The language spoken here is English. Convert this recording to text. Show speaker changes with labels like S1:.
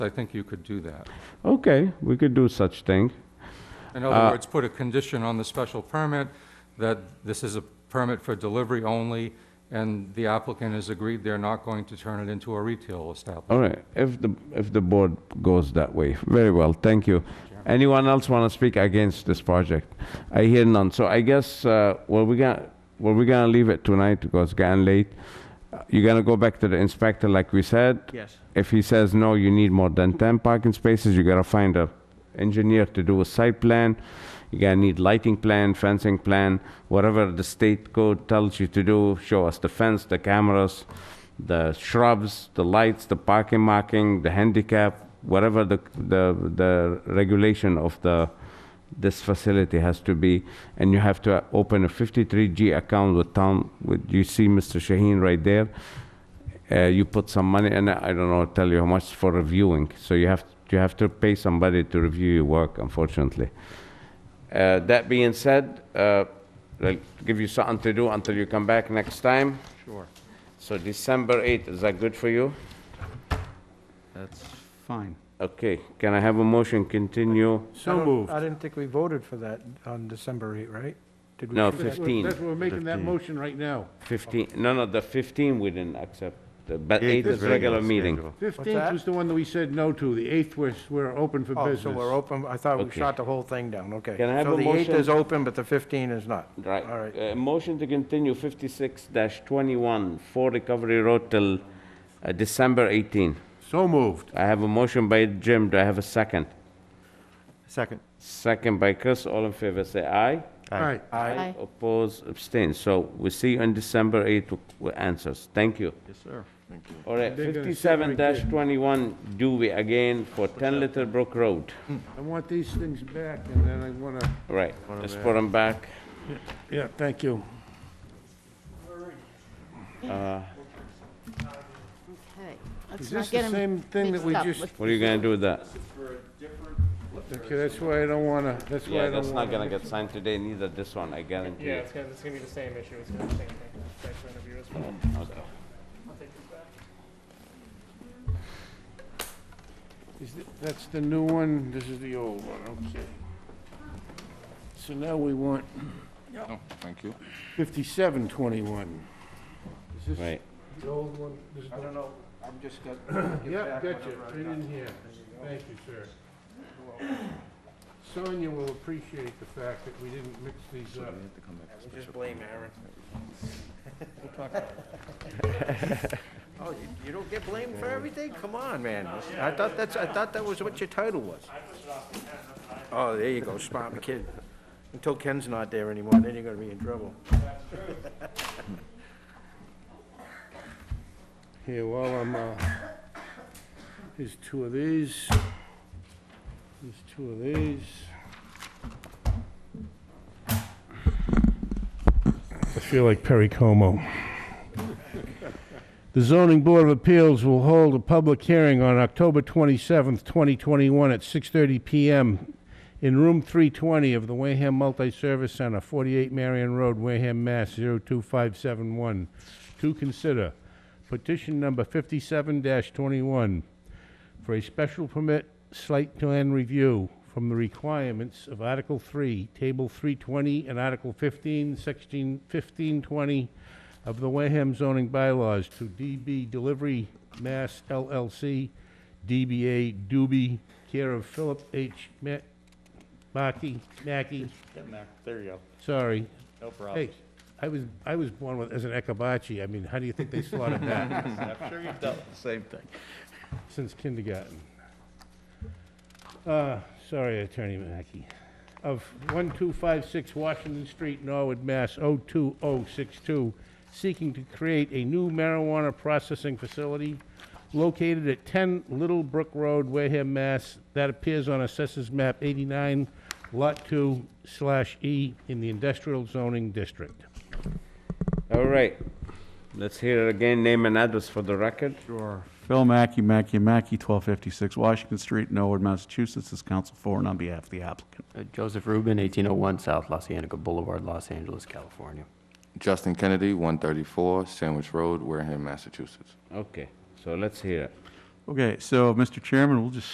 S1: So I think you could do that.
S2: Okay, we could do such thing.
S1: In other words, put a condition on the special permit that this is a permit for delivery only, and the applicant has agreed they're not going to turn it into a retail establishment.
S2: All right, if the, if the board goes that way, very well, thank you. Anyone else want to speak against this project? I hear none, so I guess, uh, well, we got, well, we're gonna leave it tonight because it's getting late. You're gonna go back to the inspector like we said?
S3: Yes.
S2: If he says, no, you need more than 10 parking spaces, you gotta find a engineer to do a site plan. You gotta need lighting plan, fencing plan, whatever the state code tells you to do, show us the fence, the cameras, the shrubs, the lights, the parking marking, the handicap, whatever the, the, the regulation of the, this facility has to be, and you have to open a 53G account with town, with, you see Mr. Shaheen right there? uh, you put some money in it, I don't know, tell you how much for reviewing. So you have, you have to pay somebody to review your work, unfortunately. Uh, That being said, uh, I'll give you something to do until you come back next time.
S1: Sure.
S2: So December 8th, is that good for you?
S3: That's fine.
S2: Okay, can I have a motion continue?
S4: I
S5: So
S4: don't-
S5: moved.
S4: I didn't think we voted for that on December 8, right? Did we?
S2: No,
S4: do that?
S5: That's what-
S2: 15.
S5: That's what we're making that
S3: 15.
S5: motion right now.
S2: 15, no, no, the 15 we didn't accept, The- but 8 is regular meeting.
S4: that?
S5: Fifteenth was the one that we said no to. The eighth was, we're open for
S4: Oh,
S5: business.
S4: so we're open, I thought we
S2: Okay.
S4: shot the whole thing down, okay.
S2: Can I have a
S4: So the 8
S2: motion?
S4: is open, but the 15 is not.
S2: Right.
S4: All right.
S2: Uh, Motion to continue 56-21 for Recovery Road till uh, December 18.
S5: So moved.
S2: I have a motion by Jim, do I have a second?
S3: Second.
S2: Second by Chris, all in favor, say aye.
S5: All right.
S4: Aye.
S6: Aye.
S2: Oppose, abstain, so we see you on December 8th with- with answers, thank you.
S3: Yes, sir.
S2: All right,
S5: They're gonna sit right
S2: 57-21 Dewey again for 10 Little Brook Road.
S5: I want these things back, and then I want to,
S2: All right, let's put them back.
S5: yeah, thank you.
S6: Okay,
S5: Is this
S6: let's not
S5: the
S6: get them
S5: same thing that we
S6: mixed up.
S5: just,
S6: Let's-
S2: What are you gonna do with that?
S5: okay, that's why I don't want to, that's why I
S2: Yeah,
S5: don't want to.
S2: that's not gonna get signed today, neither this one, I guarantee
S7: Yeah,
S2: you.
S7: it's gonna, it's gonna be the same issue, it's gonna be the same thing, site plan review as well.
S5: Is th- That's the new one, this is the old one, okay. So now we want...
S2: Oh,
S5: Thank you. 5721. Is this
S2: Right,
S5: the old one? This is
S4: I
S5: the-
S4: don't know, I'm just got.
S5: Yeah, gotcha, right in here. Thank you, sir. Sonia will appreciate the fact that we didn't mix these up.
S4: Just blame Aaron. Oh, you- you don't get blamed for everything? Come on, man. I thought that's, I thought that was what your title was. Oh, there you go, smart kid. Until Ken's not there anymore, then you're gonna be in trouble.
S5: Here, while I'm, uh, here's two of these. Here's two of these. I feel like Perry Como. The zoning board of appeals will hold a public hearing on October 27th, 2021 at 6:30 PM in room 320 of the Wareham Multi-Service Center, 48 Marion Road, Wareham, Mass. 02571. To consider petition number 57-21 for a special permit site plan review from the requirements of Article 3, Table 320, and Article 15, Section 1520 of the Wareham zoning bylaws to DB Delivery Mass LLC, DBA Doobie, care of Philip H. Ma- Mackey, Mackey,
S3: Getting there. There you go.
S5: sorry.
S3: No problem.
S5: Hey, I was, I was born with, as an Ekabachi, I mean, how do you think they slaughtered that?
S3: I'm sure you've dealt with the same thing.
S5: since kindergarten. Uh, Sorry, Attorney Mackey. Of 1256 Washington Street, Norwood, Mass. 02062, seeking to create a new marijuana processing facility located at 10 Little Brook Road, Wareham, Mass. That appears on Assessors Map 89, Lot 2 slash E in the Industrial Zoning District.
S2: all right. Let's hear it again, name and address for the record.
S3: Sure. Phil Mackey, Mackey, Mackey, 1256 Washington Street, Norwood, Massachusetts, is counsel for and on behalf of the applicant.
S8: Uh, Joseph Rubin, 1801 South Los Angeles Boulevard, Los Angeles, California.
S9: Justin Kennedy, 134 Sandwich Road, Wareham, Massachusetts.
S2: Okay, so let's hear it.
S3: Okay, so, Mr. Chairman, we'll just